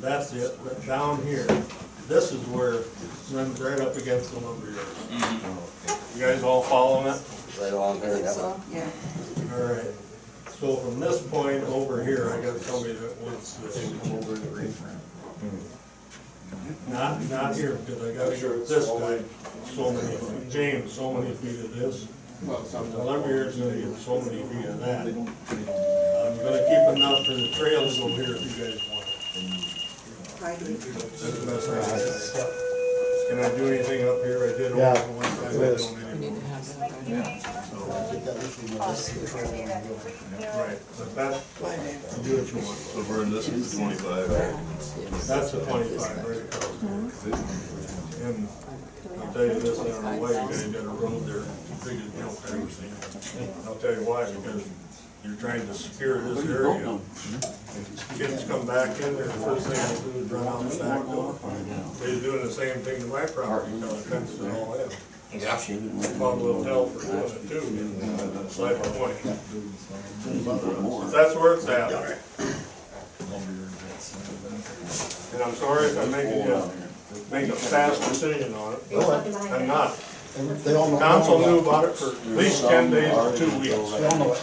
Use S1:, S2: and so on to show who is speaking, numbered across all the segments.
S1: that's it, but down here, this is where, runs right up against the lumberyard. You guys all following it?
S2: right along here, that one.
S3: So, yeah.
S1: Alright, so from this point over here, I got somebody that wants to come over and read. Hmm. Not, not here, because I got this guy, so many, James, so many feet of this. The lumberyard's gonna get so many feet of that. I'm gonna keep enough for the trails over here if you guys want it.
S3: Right here.
S1: That's the best I can do. Can I do anything up here? I did
S4: Yeah.
S1: one time, I don't anymore. Right, but that, do what you want.
S5: So Vern, this is twenty-five,
S1: That's the twenty-five, right across. And I'll tell you this, I don't know why you guys got a road there, as big as Mount Patterson. I'll tell you why, because you're trying to secure this area. Kids come back in there, the first thing they do is run out the back door. They're doing the same thing to my property, you know, fence it all in. Yeah. Bought a little hell for doing it too, it's like a point. But That's where it's at. And I'm sorry if I'm making you make a fast decision on it. I'm not.
S4: They all know.
S1: Council knew about it for at least ten days or two weeks.
S4: They all know it.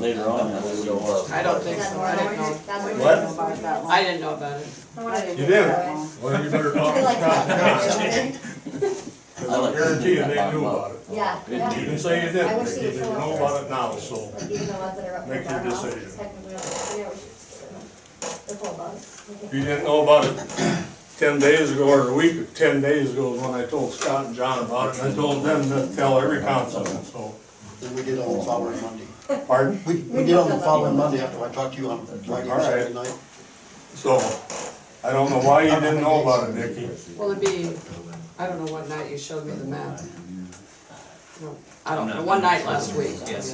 S2: Later on, that was
S6: I don't think so, I didn't know,
S3: About that one.
S6: I didn't know about it.
S3: I didn't
S1: You
S3: know
S1: did?
S3: that one.
S1: Well, you better talk to Scott Johnson. 'Cause I guarantee you they knew about it.
S7: Yeah, yeah.
S1: You can say you didn't, because they know about it now, so. Make your decision.
S7: The whole bus.
S1: If you didn't know about it ten days ago or a week, or ten days ago is when I told Scott and John about it. And I told them to tell every councilman, so.
S4: Then we did on the following Monday.
S1: Pardon?
S4: We, we did on the following Monday after I talked to you on Friday,
S1: All right.
S4: Saturday night.
S1: So, I don't know why you didn't know about it, Nikki.
S6: Well, it'd be, I don't know what night you showed me the map. No, I don't know, one night last week. Yes.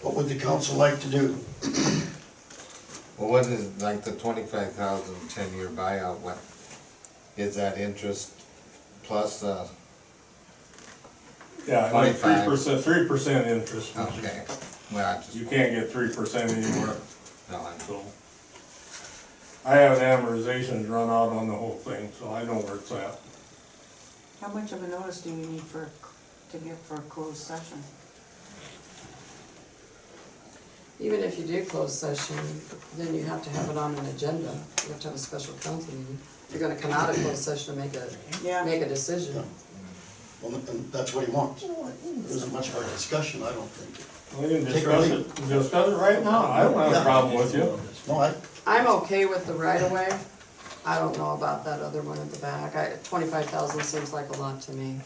S4: What would the council like to do?
S8: Well, what is, like the twenty-five thousand ten-year buyout, what, is that interest plus, uh,
S1: Yeah, like three
S8: 25.
S1: percent, three percent interest. which is-
S8: okay, well, I just,
S1: You can't get three percent anywhere,
S8: no, I'm,
S1: so. I have amortizations run out on the whole thing, so I know where it's at.
S3: How much of a notice do you need for, to give for a closed session?
S6: Even if you do close session, then you have to have it on an agenda, you have to have a special council meeting. If You're gonna come out of closed session and make a,
S3: Yeah.
S6: make a decision.
S4: Well, and that's what he wants. There isn't much of a discussion, I don't think.
S1: We can
S4: Take
S1: discuss
S4: or leave.
S1: it, discuss it right now, I don't have a
S4: Yeah.
S1: problem with you.
S4: No, I,
S6: I'm okay with the right of way, I don't know about that other one at the back, I, twenty-five thousand seems like a lot to me.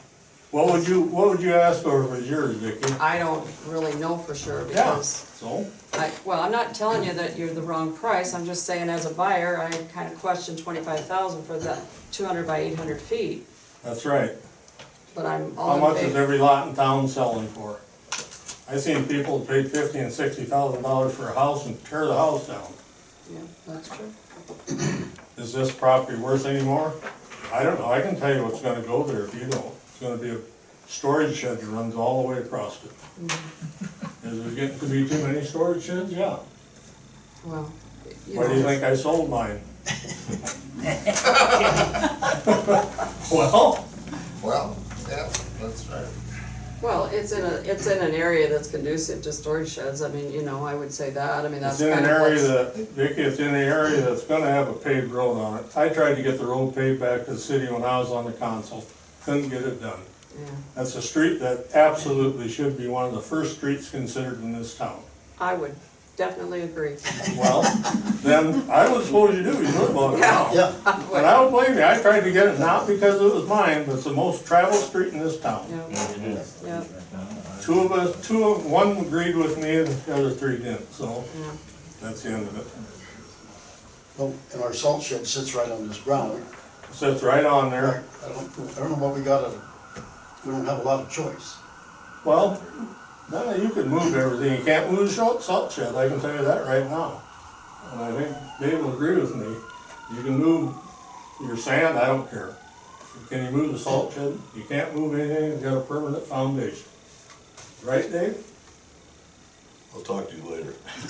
S1: What would you, what would you ask for if it was yours, Vicki?
S6: I don't really know for sure
S1: Yeah,
S6: because
S1: so,
S6: I, well, I'm not telling you that you're the wrong price, I'm just saying as a buyer, I kind of question twenty-five thousand for that two hundred by eight hundred feet,
S1: that's right.
S6: but I'm
S1: How
S6: all in
S1: much is
S6: favor.
S1: every lot in town selling for? I seen people pay fifty and sixty thousand dollars for a house and tear the house down.
S6: Yeah, that's true.
S1: Is this property worth any more? I don't know, I can tell you what's gonna go there if you don't. It's gonna be a storage shed that runs all the way across it.
S6: Mm-hmm.
S1: Is there getting to be too many storage sheds? Yeah.
S6: Well, you
S1: Why do you
S6: know,
S1: think I sold mine? Well,
S8: well, yeah, that's right.
S6: well, it's in a, it's in an area that's conducive to storage sheds, I mean, you know, I would say that, I mean, that's
S1: it's
S6: kind
S1: in
S6: of
S1: an area
S6: what's.
S1: that, Vicky, it's in an area that's gonna have a paved road on it. I tried to get the road paved back to the city when I was on the council, couldn't get it done.
S6: Yeah,
S1: That's a street that absolutely should be one of the first streets considered in this town.
S6: I would definitely agree.
S1: Well, then I was supposed to do, you know about it now.
S4: yeah,
S1: And I don't blame you, I tried to get it not because it was mine, but it's the most traveled street in this town.
S6: Yeah, yeah,
S1: Two of us, two of, one agreed with me and the other three didn't, so
S6: yeah.
S1: that's the end of it.
S4: well, and our salt shed sits right on this ground.
S1: Sits right on
S4: I
S1: there.
S4: don't, I don't know what we got, to- we don't have a lot of choice.
S1: Well, no, you can move everything, you can't move the salt- salt shed, I can tell you that right now. And I think Dave will agree with me, you can move your sand, I don't care. Can you move the salt shed? You can't move anything, it's got a permanent foundation. Right, Dave?
S5: I'll talk to you later.